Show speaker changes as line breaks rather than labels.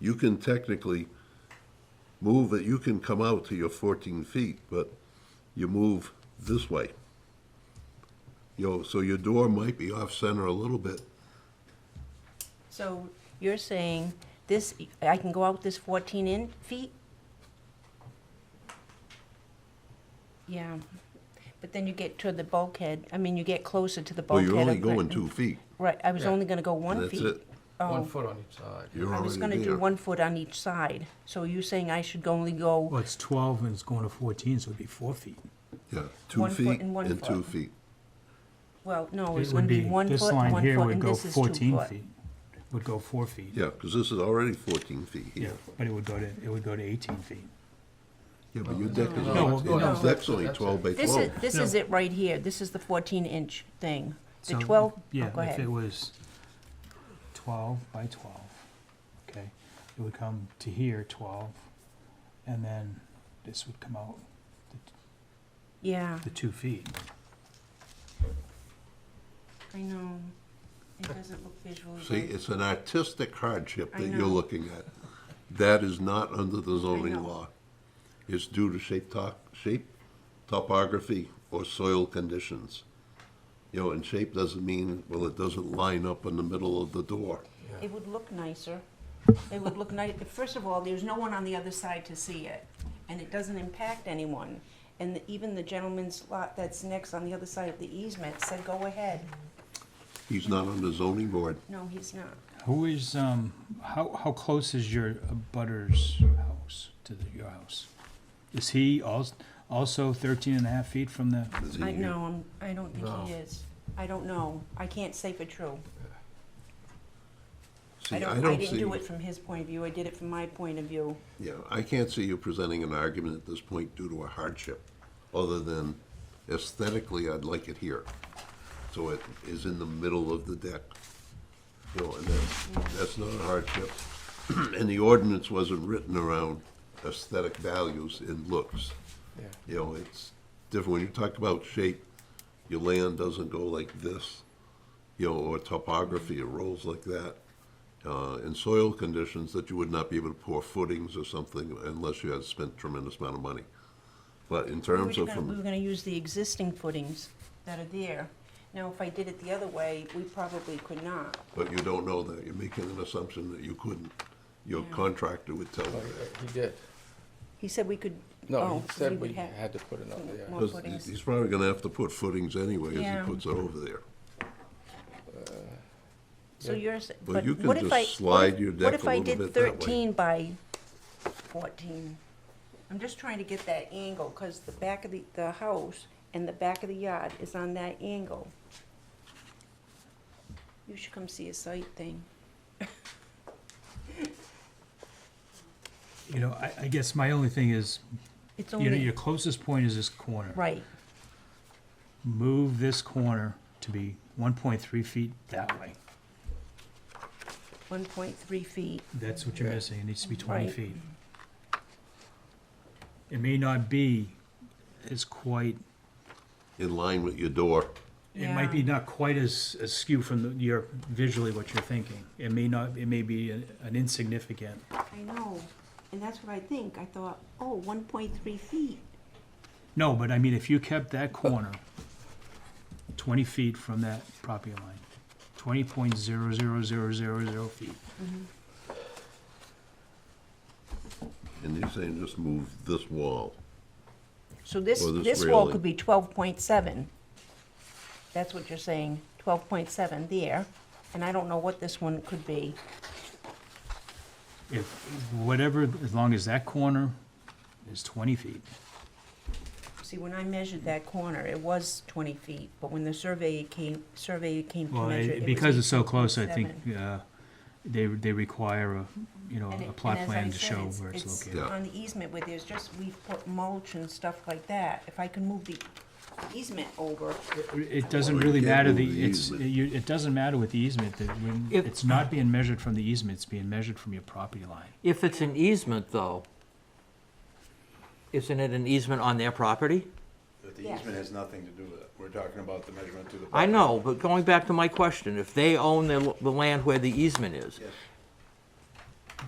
you can technically move it, you can come out to your fourteen feet, but you move this way. You know, so your door might be off center a little bit.
So you're saying this, I can go out this 14 in feet? Yeah, but then you get to the bulkhead, I mean, you get closer to the
Well,
bulkhead.
you're only
of-
going two feet.
Right, I was
Yeah.
only gonna go one
That's
feet.
it.
One
Oh,
foot on each side.
You're
I was gonna
already
do
there.
one foot on each side. So you're saying I should only go,
Well, it's 12 and it's going to 14, so it'd be four feet.
Yeah, two
one foot
feet
and one
and two
foot.
feet.
well, no, it's
It
gonna
would
be one
this
foot,
line
one
here
foot,
would
and
go
this is two
14
foot.
feet. Would go four feet.
Yeah, because this is already fourteen feet
Yeah,
here.
but it would go to, it would go to 18 feet.
Yeah, but your deck is
No,
only,
no,
your
no.
deck's only
That's it.
twelve by
This
twelve.
is, this is it right here. This is the 14 inch thing. The
So,
12, oh,
Yeah,
go
if it
ahead.
was 12 by 12, okay, it would come to here 12, and then this would come out the-
Yeah,
the two feet.
I know. It doesn't look visually
See,
good.
it's an artistic hardship
I
that
know.
you're looking at. That is not under the
know.
zoning law. It's due to shape, to- shape, topography, or soil conditions. You know, and shape doesn't mean, well, it doesn't line up in the middle of the door.
It would look nicer. It would look nice, first of all, there's no one on the other side to see it, and it doesn't impact anyone. And even the gentleman's lot that's next on the other side of the easement said, go ahead.
He's not on the zoning board.
No, he's not.
Who is, um, how, how close is your butter's house to the- your house? Is he als- also 13 and a half feet from the,
Is he
I
here?
know, I'm- I don't think he
No.
is. I don't know. I can't say for true.
See,
I don't, I didn't
see-
do it from his point of view. I did it from my point of view.
Yeah, I can't see you presenting an argument at this point due to a hardship, other than aesthetically, I'd like it here. So it is in the middle of the deck. You know, and that's, that's not a hardship. And the ordinance wasn't written around aesthetic values and looks.
Yeah.
You know, it's different. When you talk about shape, your land doesn't go like this, you know, or topography, it rolls like that. Uh, and soil conditions that you would not be able to pour footings or something unless you had spent tremendous amount of money. But in
We were
terms of
gonna, we were
from,
gonna use the existing footings that are there. Now, if I did it the other way, we probably could not.
but you don't know that. You're making an assumption that you couldn't. Your
Yeah.
contractor would tell you
Like,
that.
uh, He did.
He said we could.
No,
oh,
he said
would
we
have-
had to put it up there.
More
Because
footings.
he's probably gonna have to put footings anyway
Yeah.
as he puts it over there.
So
Yeah.
yours,
Well,
but
you can
what if
just
I? what
slide
if-
your deck a little
What
bit
if I
that way.
did thirteen by fourteen? I'm just trying to get that angle, cause the back of the, the house and the back of the yard is on that angle. You should come see a site thing.
you know, I, I guess my only thing is,
It's
you know,
only,
your closest point is this corner.
right,
Move this corner to be 1.3 feet that way.
one point three feet.
That's what you're
Yeah.
missing, it needs to be 20
Right.
feet. It may not be as quite,
In line with your door.
it might be
Yeah.
not quite as as askew from the- your, visually what you're thinking. It may not, it may be an an insignificant.
I know, and that's what I think. I thought, oh, one point three feet.
No, but I mean, if you kept that corner twenty feet from that property line, twenty point zero zero zero zero zero feet.
And you're saying just move this wall.
So this,
Or this
this wall
railing.
could be twelve point seven. That's what you're saying, twelve point seven there, and I don't know what this one could be.
If, whatever, as long as that corner is twenty feet.
See, when I measured that corner, it was twenty feet, but when the surveyor came, surveyor came to
Well,
measure it,
it-
it
because
was
it's so close, I think,
18.7.
uh, they, they require a, you know,
And it-
a
and
plot
as I
plan to
said,
show where it's located.
Yeah.
On the easement where there's just, we've put mulch and stuff like that. If I can move the easement over,
It doesn't
Well, you
really
can't
matter,
move
the,
the
it's,
easement.
you, it doesn't matter with the easement, that when,
If-
it's not being measured from the easement, it's being measured from your property line.
If it's an easement, though, isn't it an easement on their property?
But the
Yeah.
easement has nothing to do with it. We're talking about the measurement to the.
I
property.
know, but going back to my question, if they own the, the land where the easement is,